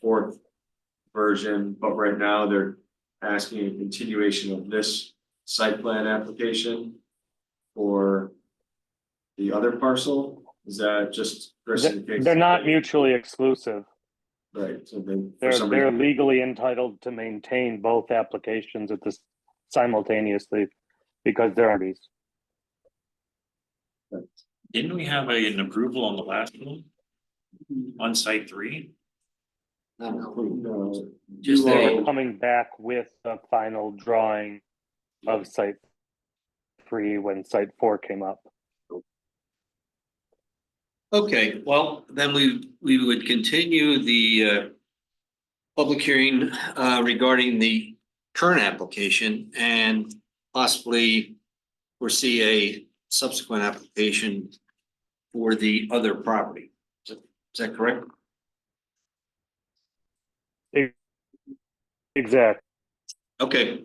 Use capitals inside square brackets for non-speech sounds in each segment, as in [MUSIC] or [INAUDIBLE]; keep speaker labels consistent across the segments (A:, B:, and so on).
A: fourth version, but right now they're asking a continuation of this site plan application for the other parcel, is that just? Kristen, in case-
B: They're not mutually exclusive.
A: Right, so then for
B: They're,
A: some
B: they're
A: reason,
B: legally entitled to maintain both applications at this simultaneously because they're already.
C: Didn't we have a- an approval on the last one? On site three?
A: no,
C: Just
A: You
C: a-
A: all-
B: Coming back with a final drawing of site three when site four came up.
D: Okay, well, then we, we would continue the uh. Public hearing uh regarding the current application and possibly. Foresee a subsequent application for the other property. Is that- is that correct?
B: Exactly.
D: Okay,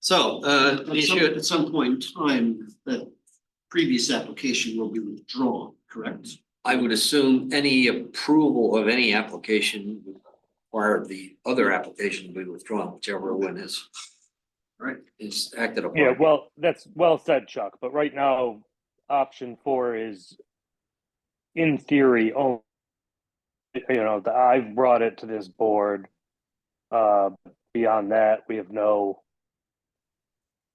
D: so uh the
E: At some,
D: issue,
E: at some point in time, that previous application will be withdrawn, correct?
D: I would assume any approval of any application. would require the other application to be withdrawn, whichever one is. Right, is acted upon.
B: Yeah, well, that's well said, Chuck, but right now, option four is in theory, oh, you know, the- I've brought it to this board. Uh, beyond that, we have no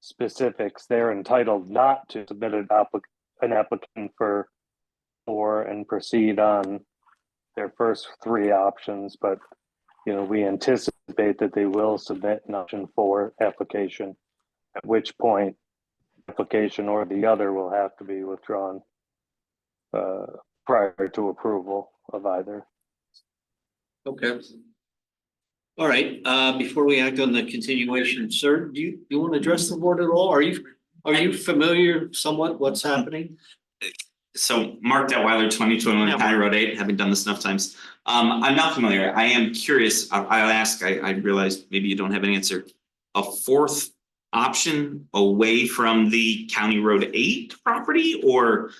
B: specifics. They're entitled not to submit an applic- an applicant for four and proceed on their first three options, but, you know, we anticipate that they will submit an option four application at which point application or the other will have to be withdrawn uh, prior to approval of either.
D: Okay. All right, uh, before we act on the continuation, sir, do you, you want to address the board at all? Are you, are you familiar somewhat what's happening?
F: So Mark Detweiler, twenty twenty one County Road eight, having done this enough times. Um, I'm not familiar. I am curious. I- I'll ask. I, I realize maybe you don't have an answer. A fourth option away from the County Road eight property or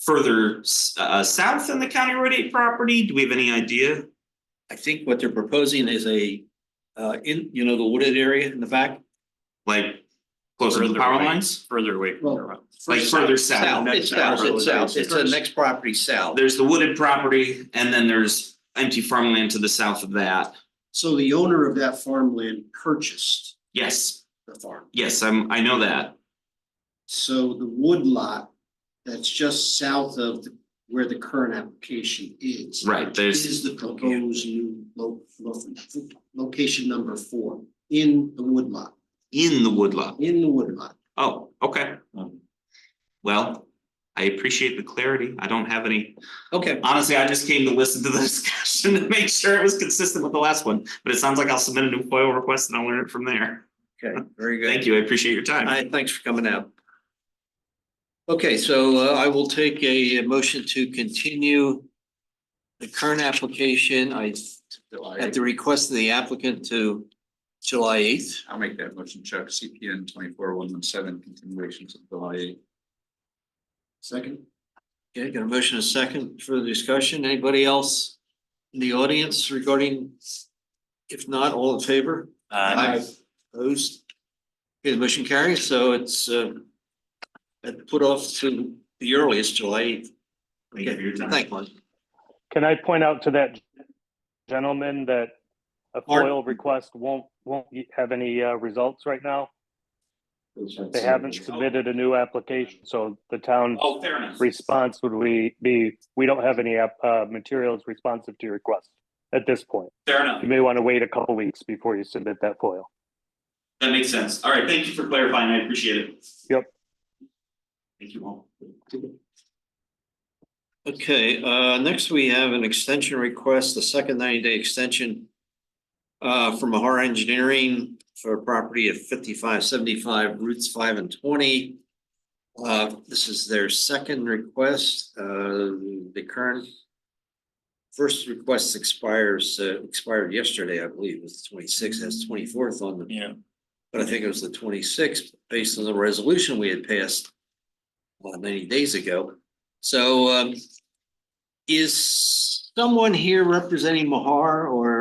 F: further s- uh, south than the County Road eight property? Do we have any idea?
D: I think what they're proposing is a, uh, in, you know, the wooded area in the back.
F: Like closer to the
C: Further
F: power
C: away.
F: lines?
C: Further away from the road.
F: Like further south?
D: It's south, it's south, it's the next property south.
F: There's the wooded property and then there's empty farmland to the south of that.
E: So the owner of that farmland purchased
F: Yes,
E: the farm.
F: yes, I'm, I know that.
E: So the wood lot that's just south of the- where the current application is.
F: Right, there's-
E: Is the proposed new lo- lo- location number four in the wood lot,
F: in the woodlot.
E: in the wood lot.
F: Oh, okay. Well, I appreciate the clarity. I don't have any,
D: Okay,
F: honestly, I just came to listen to the [LAUGHS] discussion to make sure it was consistent with the last one. But it sounds like I'll submit a new FOIL request and I'll learn it from there.
D: okay, very good.
F: Thank you. I appreciate your time.
D: Hi, thanks for coming out. Okay, so uh, I will take a motion to continue the current application. I, at the request of the applicant to July eighth.
G: I'll make that motion, Chuck, CPN twenty-four one one seven, continuations of July eighth.
E: Second?
D: Okay, got a motion, a second for the discussion. Anybody else in the audience regarding? If not, all in favor?
C: Uh,
D: Opposed? Okay, the motion carries, so it's uh, put off to the earliest July eighth.
F: Thank you for your time.
D: Thank you.
B: Can I point out to that gentleman that a
D: Mark?
B: FOIL request won't, won't have any uh, results right now? They haven't submitted a new application, so the town
F: Oh, fair enough.
B: response would we be, we don't have any app- uh, materials responsive to your request at this point.
F: Fair enough.
B: You may want to wait a couple weeks before you submit that FOIL.
F: That makes sense. All right. Thank you for clarifying. I appreciate it.
B: Yep.
F: Thank you all.
D: Okay, uh, next we have an extension request, the second ninety day extension. Uh, from Mahar Engineering for a property at fifty-five seventy-five routes five and twenty. Uh, this is their second request, uh, the current. First request expires, uh, expired yesterday, I believe, it was the twenty-sixth, that's twenty-fourth on the
C: yeah,
D: but I think it was the twenty-sixth, based on the resolution we had passed uh, ninety days ago. So, um, is someone here representing Mahar or